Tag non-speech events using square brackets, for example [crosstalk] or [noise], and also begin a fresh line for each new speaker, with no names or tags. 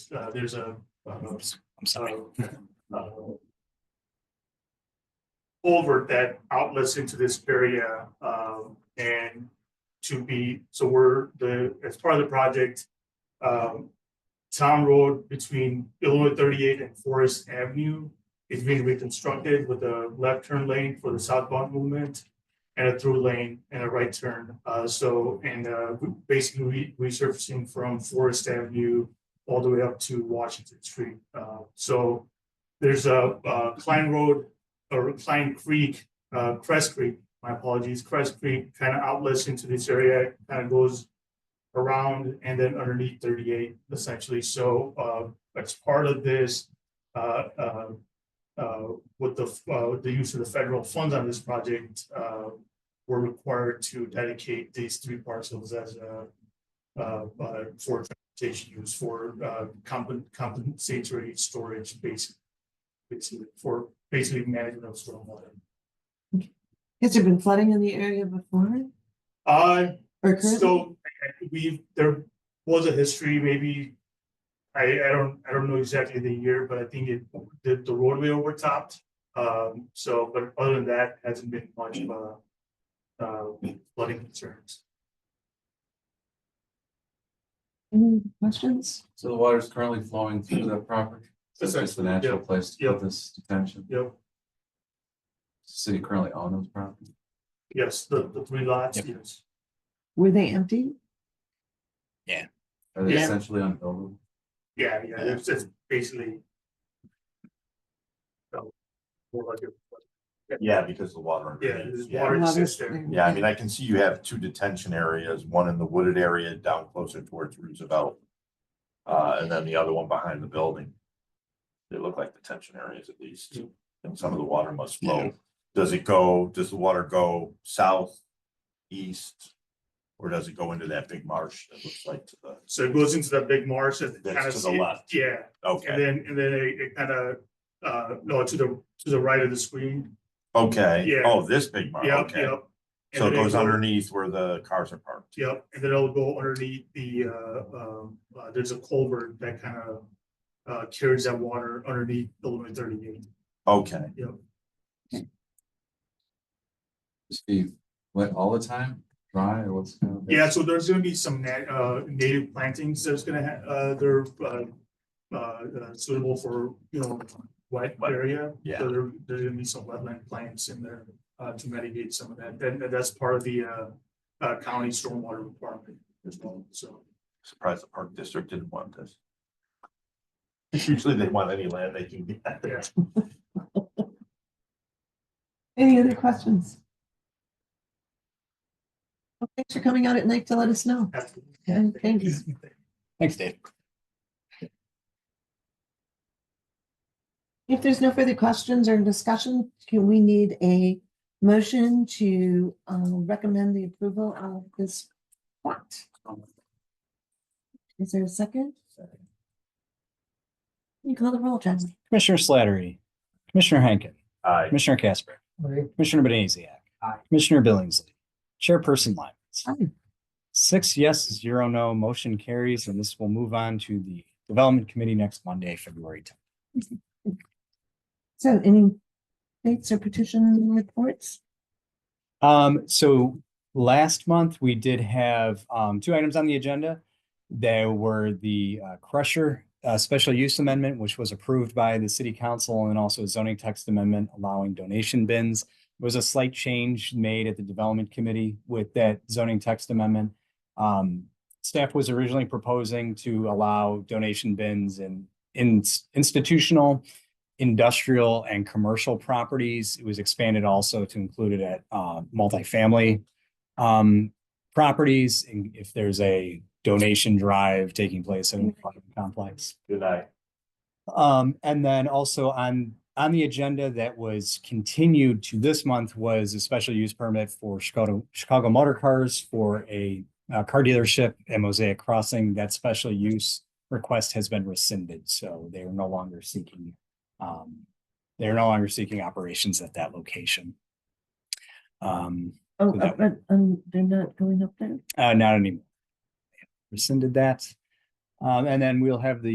uh, there's a, uh,
I'm sorry.
[laughs] uh, uh, culvert that outlets into this area, um, and to be, so we're the, as part of the project, um, town road between Illinois thirty-eight and Forest Avenue is being reconstructed with a left turn lane for the southbound movement and a through lane and a right turn. Uh, so, and, uh, we- basically re- resurfacing from Forest Avenue all the way up to Washington Street. Uh, so there's a, uh, Klein Road or Klein Creek, uh, Crest Creek, my apologies, Crest Creek kind of outlets into this area, kind of goes around and then underneath thirty-eight essentially. So, uh, as part of this, uh, uh, uh, with the, uh, with the use of the federal funds on this project, uh, we're required to dedicate these three parcels as a uh, uh, for transportation use for, uh, compen- compensatory storage basically. Basically, for basically management of stormwater.
Has there been flooding in the area before
Uh,
or currently?
So I- I- we, there was a history, maybe. I, I don't, I don't know exactly the year, but I think it, the, the roadway overtopped. Um, so, but other than that, hasn't been much of a. Uh, flooding concerns.
Any questions?
So the water is currently flowing through that property? So It's just the
Essentially,
natural
yeah,
place to
yeah.
put this detention.
Yep,
City currently owns those properties?
yes, the, the three lots,
Yep.
yes.
Were they empty?
Are they
Yeah.
essentially unbuildable?
Yeah, yeah, it's, it's basically. so, More like a,
Yeah, because the water.
yeah,
underneath,
there's
yeah.
water
Well,
exists
there's-
there.
Yeah, I mean, I can see you have two detention areas, one in the wooded area down closer towards Roosevelt. Uh, and then the other one behind the building. They look like detention areas at least, and some of the water must flow. Does it go, does the water go south, east? Or does it go into that big marsh that looks like to the,
So it goes into that big marsh and
That's
kind of
to the
see,
left.
yeah, And
okay,
then, and then it, it kind of, uh, no, to the, to the right of the screen.
okay.
Yeah.
Oh, this big marsh,
Yep,
okay.
yep.
So
And
it
then
goes
it'll-
underneath where the cars are parked.
Yep, and then it'll go underneath the, uh, um, uh, there's a culvert that kind of, uh, carries that water underneath Illinois thirty-eight.
Okay,
Just be wet all the time, dry or what's? kind of-
Yeah, so there's gonna be some na- uh, native plantings that's gonna ha- uh, they're, uh, uh, suitable for, you know, wet area.
yeah.
So there, there's gonna be some wetland plants in there, uh, to mitigate some of that, and and that's part of the, uh, uh, county stormwater requirement as well, so.
Surprised the park district didn't want this. Usually they want any land they can get.
Yeah.
Any other questions? Well, Thanks for coming out at night to let us know.
that's-
And thanks.
Thanks, Dave.
If there's no further questions or discussion, can we need a motion to uh, recommend the approval of this plot? Is there a second? You call the roll, Jasmine.
Commissioner Slattery, Commissioner Henkin,
Aye.
Commissioner Casper, Commissioner Benaziac. Commissioner Billingsley, Chairperson Lyman.
Aye.
Six yes, zero no, motion carries, and this will move on to the Development Committee next Monday, February tenth.
So any dates or petition reports?
Um, so last month we did have um, two items on the agenda. There were the uh, crusher uh, special use amendment, which was approved by the city council, and also a zoning text amendment allowing donation bins. There was a slight change made at the development committee with that zoning text amendment. Um, staff was originally proposing to allow donation bins in, in institutional industrial and commercial properties. It was expanded also to include it at uh, multifamily um, properties. And if there's a donation drive taking place in an apartment complex.
Good night.
Um, and then also on, on the agenda that was continued to this month was a special use permit for Chicago, Chicago Motor Cars for a uh, car dealership at Mosaic Crossing. That special use request has been rescinded, so they are no longer seeking, um, they're no longer seeking operations at that location. Um,
Oh,
Without-
but, um, they're not going up there?
uh, not anymore. Rescinded that. Um, and then we'll have the